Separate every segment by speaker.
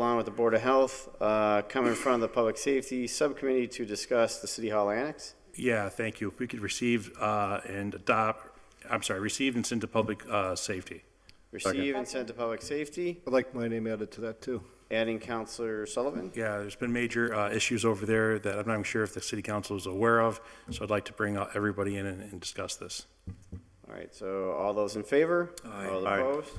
Speaker 1: along with the Board of Health, uh, come in front of the Public Safety Subcommittee to discuss the City Hall Annex.
Speaker 2: Yeah, thank you. If we could receive uh, and adopt, I'm sorry, receive and send to public uh, safety.
Speaker 1: Receive and send to Public Safety,
Speaker 3: I'd like my name added to that, too.
Speaker 1: adding Counselor Sullivan.
Speaker 2: Yeah, there's been major uh, issues over there that I'm not even sure if the city council is aware of, so I'd like to bring uh, everybody in and and discuss this.
Speaker 1: All right, so all those in favor? Aye. All
Speaker 2: Aye.
Speaker 1: opposed?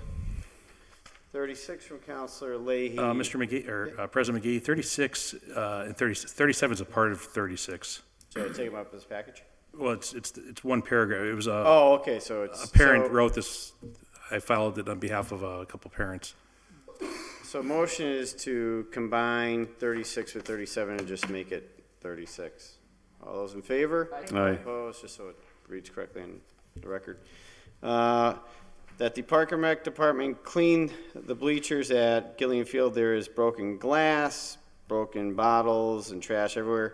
Speaker 1: Thirty-six from Counselor Leahy.
Speaker 2: Uh, Mr. McGee, or uh, President McGee, 36 uh, and 30 37 is a part of 36.
Speaker 1: So take them up as
Speaker 2: Uh,
Speaker 1: package?
Speaker 2: Well, it's, it's, it's one paragraph. It was a,
Speaker 1: Oh, okay, so it's.
Speaker 2: a parent
Speaker 1: so-
Speaker 2: wrote this, I filed it on behalf of uh, a couple parents.
Speaker 1: So motion is to combine 36 with 37 and just make it 36. All those in favor?
Speaker 2: Aye.
Speaker 1: Opposed, just so it reads correctly in the record. Uh, That the Park and Rec Department cleaned the bleachers at Gillian Field. There is broken glass, broken bottles, and trash everywhere.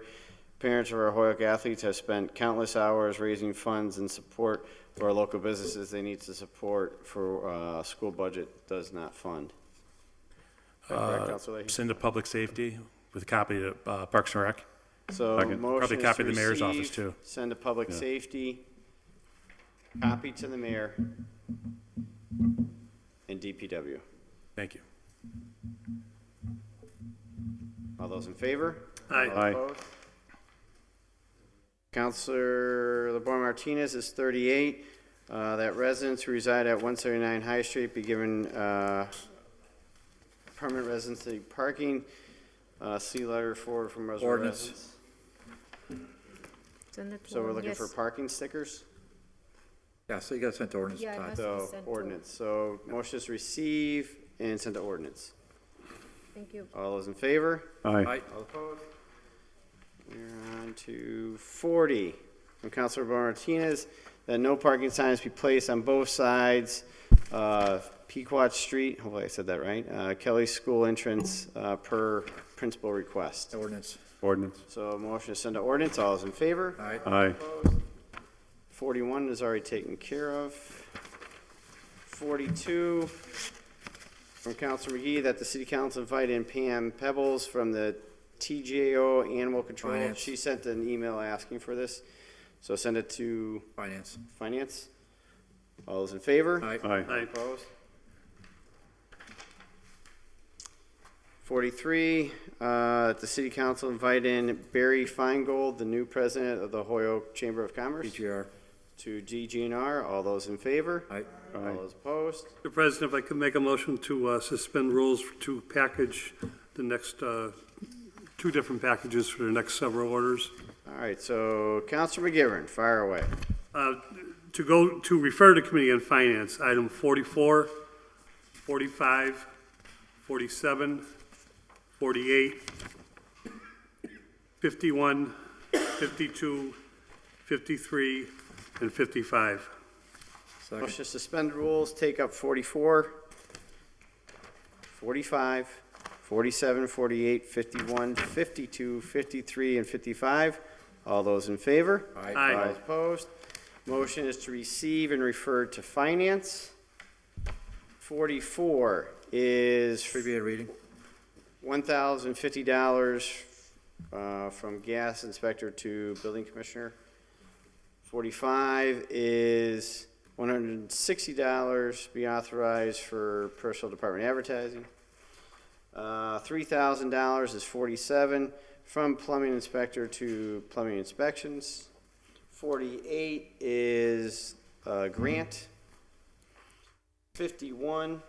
Speaker 1: Parents of our Hoyok athletes have spent countless hours raising funds and support for our local businesses they need to support for uh, school budget does not fund.
Speaker 2: Uh,
Speaker 1: Correct, Counselor Leahy?
Speaker 2: Send to public safety with a copy to uh, Parks and Rec.
Speaker 1: So
Speaker 2: Second. Probably
Speaker 1: motion is
Speaker 2: copy
Speaker 1: to
Speaker 2: the mayor's office,
Speaker 1: receive,
Speaker 2: too.
Speaker 1: send to public safety, copy to the mayor, and DPW.
Speaker 2: Thank you.
Speaker 1: All those in favor?
Speaker 2: Aye.
Speaker 1: All opposed? Counselor LeBron Martinez is 38. uh, That residents who reside at 179 High Street be given uh, permanent residency parking. Uh, See letter forward from Reservoir
Speaker 2: Ordinance.
Speaker 1: residents.
Speaker 4: Send it to
Speaker 1: So we're
Speaker 4: them,
Speaker 1: looking
Speaker 4: yes.
Speaker 1: for parking stickers?
Speaker 5: Yeah, so you got sent to ordinance,
Speaker 4: Yeah, it
Speaker 5: Todd.
Speaker 4: has- to be
Speaker 1: So
Speaker 4: sent to-
Speaker 1: ordinance, so motion is receive and send to ordinance.
Speaker 4: Thank you.
Speaker 1: All those in favor?
Speaker 5: Aye.
Speaker 1: All opposed? We're on to forty from Councilor Martinez, that no parking signs be placed on both sides of Pequot Street, hopefully I said that right, uh, Kelly School entrance, uh, per principal request.
Speaker 5: Ordinance.
Speaker 6: Ordinance.
Speaker 1: So motion to send to ordinance, all those in favor?
Speaker 5: Aye.
Speaker 6: Aye.
Speaker 1: 41 is already taken care of. 42, from Councilor McGee, that the city council invite in Pam Pebbles from the TGAO Animal Control.
Speaker 5: Finance.
Speaker 1: She sent an email asking for this, so send it to
Speaker 5: Finance.
Speaker 1: Finance. All those in favor?
Speaker 5: Aye.
Speaker 6: Aye.
Speaker 1: Opposed? Forty-three, uh, that the city council invite in Barry Feingold, the new president of the Hoyoke Chamber of Commerce
Speaker 5: BGR.
Speaker 1: to DGNR. All those in favor?
Speaker 5: Aye.
Speaker 1: All those opposed?
Speaker 7: Mr. President, if I could make a motion to uh, suspend rules to package the next, uh, two different packages for the next several orders.
Speaker 1: All right, so Counselor McGivern, fire away.
Speaker 7: Uh, To go, to refer to Committee on Finance, item 44, 45, 47, 48, 51, 52, 53, and 55.
Speaker 5: Second.
Speaker 1: Motion to suspend rules, take up 44, 45, 47, 48, 51, 52, 53, and 55. All those in favor?
Speaker 5: Aye.
Speaker 7: Aye.
Speaker 1: All those opposed? Motion is to receive and refer to Finance. 44 is
Speaker 5: Should be a reading.
Speaker 1: one thousand fifty dollars uh, from gas inspector to building commissioner. Forty-five is one hundred and sixty dollars be authorized for personal department advertising. Uh, Three thousand dollars is forty-seven from plumbing inspector to plumbing inspections. Forty-eight is uh, grant. Fifty-one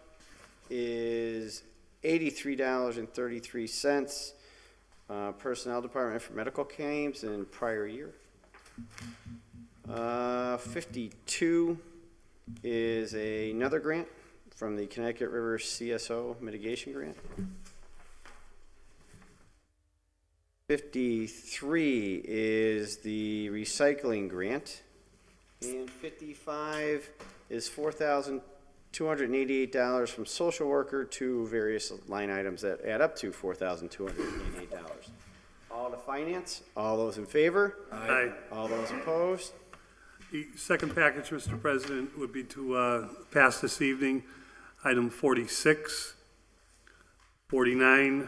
Speaker 1: is eighty-three dollars and thirty-three cents, uh, Personnel Department for medical claims in prior year. Uh, fifty-two is another grant from the Connecticut River CSO mitigation grant. Fifty-three is the recycling grant. And fifty-five is four thousand two hundred and eighty-eight dollars from social worker to various line items that add up to four thousand two hundred and eighty-eight dollars. All to finance, all those in favor,
Speaker 7: Aye.
Speaker 1: all those opposed,
Speaker 7: The second package, Mr. President, would be to uh, pass this evening, item 46, Forty-nine,